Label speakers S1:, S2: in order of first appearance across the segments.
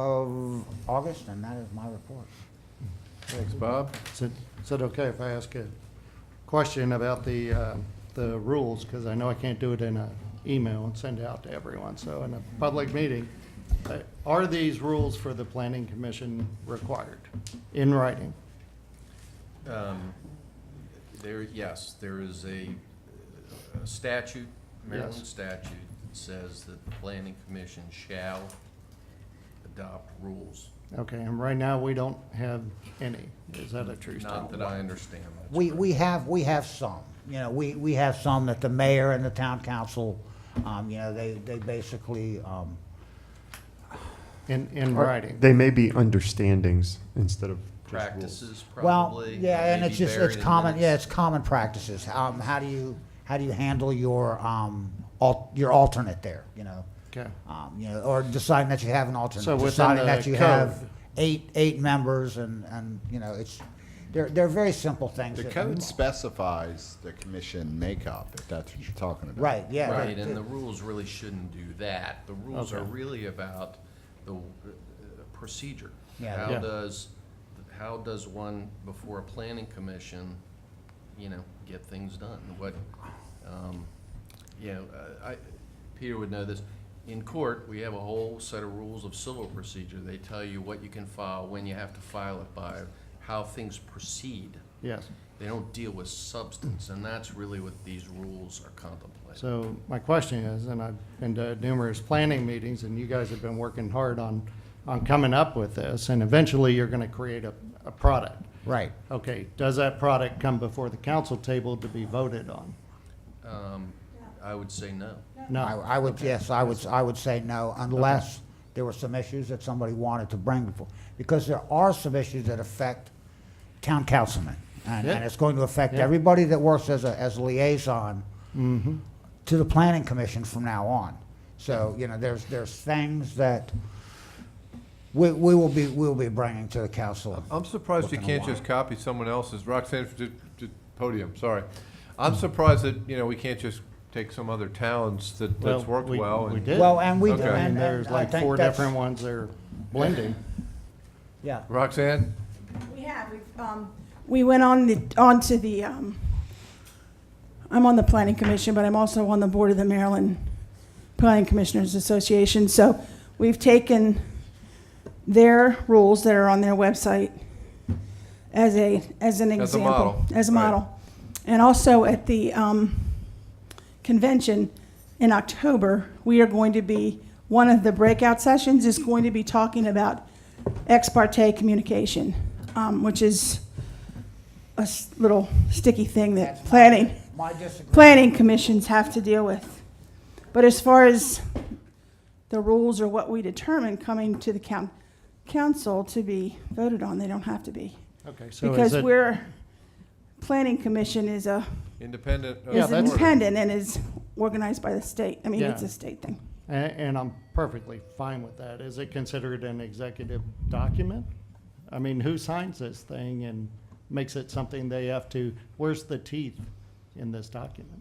S1: of August, and that is my report.
S2: Thanks, Bob.
S3: Is it, is it okay if I ask a question about the, uh, the rules? Because I know I can't do it in an email and send it out to everyone, so in a public meeting. uh, Are these rules for the planning commission required in writing?
S4: Um, There, yes, there is a a statute, Maryland
S3: Yes.
S4: statute, that says that the planning commission shall adopt rules.
S3: Okay, and right now, we don't have any. Is that a true
S4: Not
S3: statement?
S4: that I understand. that's
S1: We,
S4: right.
S1: we have, we have some, you know, we, we have some that the mayor and the town council, um, you know, they, they basically, um,
S3: In, in writing?
S5: They may be understandings instead of just rules.
S4: Practices
S1: well,
S4: probably.
S1: yeah, and
S4: maybe
S1: it's just,
S4: buried
S1: it's
S4: in
S1: common, yeah,
S4: minutes.
S1: it's common practices. Um, how do you, how do you handle your, um, al, your alternate there, you know?
S3: Okay.
S1: Um, you know, or deciding that you have an alternate,
S3: So within
S1: deciding
S3: the
S1: that you
S3: code.
S1: have eight, eight members and, and, you know, it's, they're, they're very simple things.
S6: The
S1: that-
S6: code specifies the commission makeup, if that's what you're talking about.
S1: Right, yeah.
S4: Right,
S1: that-
S4: and the rules really shouldn't do that. The rules are really about the uh, procedure.
S1: Yeah.
S4: How
S3: Yeah.
S4: does, how does one, before a planning commission, you know, get things done? What, um, you know, uh, I, Peter would know this. In court, we have a whole set of rules of civil procedure. They tell you what you can file, when you have to file it by, how things proceed.
S3: Yes.
S4: They don't deal with substance, and that's really what these rules are contemplating.
S3: So my question is, and I've been to numerous planning meetings, and you guys have been working hard on, on coming up with this, and eventually you're gonna create a, a product.
S1: Right.
S3: Okay, does that product come before the council table to be voted on?
S4: Um, I would say no.
S3: No,
S1: I, I would, yes, I would, I would say no, unless there were some issues that somebody wanted to bring before. Because there are some issues that affect town councilmen, and, and
S3: Yeah.
S1: it's going to affect
S3: Yeah. Mm-hmm.
S1: everybody that works as a, as a liaison to the planning commission from now on. So, you know, there's, there's things that we, we will be, we will be bringing to the council.
S6: Oh.
S2: I'm surprised you
S1: Looking
S2: can't just copy someone else's. Roxanne, to, to podium, sorry. I'm surprised that, you know, we can't just take some other towns that, that's
S3: Well,
S2: worked
S3: we-
S2: well.
S3: we
S2: and-
S3: did.
S1: Well, and we,
S2: Okay. I mean,
S3: And
S1: and,
S3: there's
S1: and I
S3: like
S1: think
S3: four
S1: that's,
S3: different ones that are blending.
S1: yeah.
S2: Roxanne,
S7: We have, we've, um, we went on the, onto the, um, I'm on the planning commission, but I'm also on the board of the Maryland Planning Commissioners Association, so we've taken their rules that are on their website as a, as an
S2: As a
S7: example.
S2: model,
S7: As a
S2: right.
S7: model. And also at the, um, convention in October, we are going to be, one of the breakout sessions is going to be talking about ex parte communication, um, which is a s- little sticky thing that planning,
S1: My disagreement.
S7: planning commissions have to deal with. But as far as the rules or what we determine coming to the coun- council to be voted on, they don't have to be.
S3: Okay, so is
S7: Because
S3: it,
S7: we're, planning commission is a,
S2: independent. of
S3: Oh, Yeah,
S7: is
S2: the
S3: that's-
S2: board.
S7: independent and is organized by the state. I mean, it's
S3: Yeah.
S7: a state thing.
S3: a- and I'm perfectly fine with that. Is it considered an executive document? I mean, who signs this thing and makes it something they have to, where's the teeth in this document?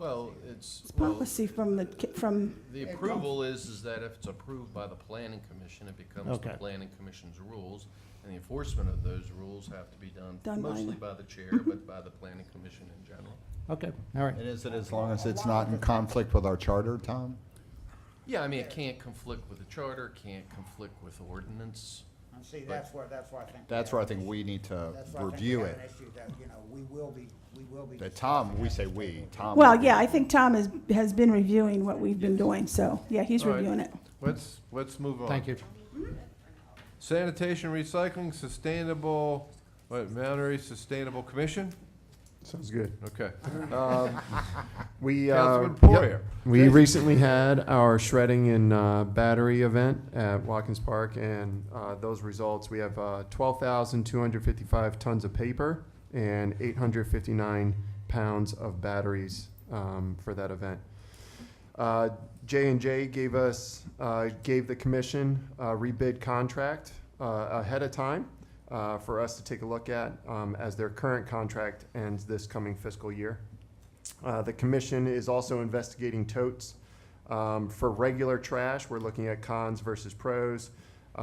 S4: Well, it's,
S7: It's
S4: well,
S7: policy from the, ki- from,
S4: the approval is, is that if it's approved by the planning commission, it becomes the
S3: Okay.
S4: planning commission's rules. And the enforcement of those rules have to be done
S7: Done by
S4: mostly
S7: the-
S4: by the chair, but by the planning commission in general.
S3: Okay, all right.
S6: And is it as long as it's not in conflict with our charter, Tom?
S4: Yeah, I mean, it can't conflict with the charter, can't conflict with ordinance.
S1: And see, that's where, that's where I think. we
S6: That's
S1: have
S6: where I
S1: an
S6: think
S1: issue.
S6: we need to
S1: That's why I think we
S6: review
S1: have
S6: it.
S1: an issue that, you know, we will be, we will be.
S6: That Tom, we say we, Tom.
S7: well, yeah, I think Tom has, has been reviewing what we've been doing, so, yeah, he's
S2: All right.
S7: reviewing it.
S2: Let's, let's move on.
S3: Thank you.
S2: Sanitation, recycling, sustainable, what, Monterey Sustainable Commission?
S5: Sounds good.
S2: Okay.
S5: We, uh,
S2: Councilman Poirier.
S5: we recently had our shredding and uh, battery event at Watkins Park, and uh, those results, we have uh, 12,255 tons of paper and 859 pounds of batteries um, for that event. Uh, J and J gave us, uh, gave the commission a rebid contract uh, ahead of time uh, for us to take a look at um, as their current contract ends this coming fiscal year. Uh, The commission is also investigating totes. Um, For regular trash, we're looking at cons versus pros.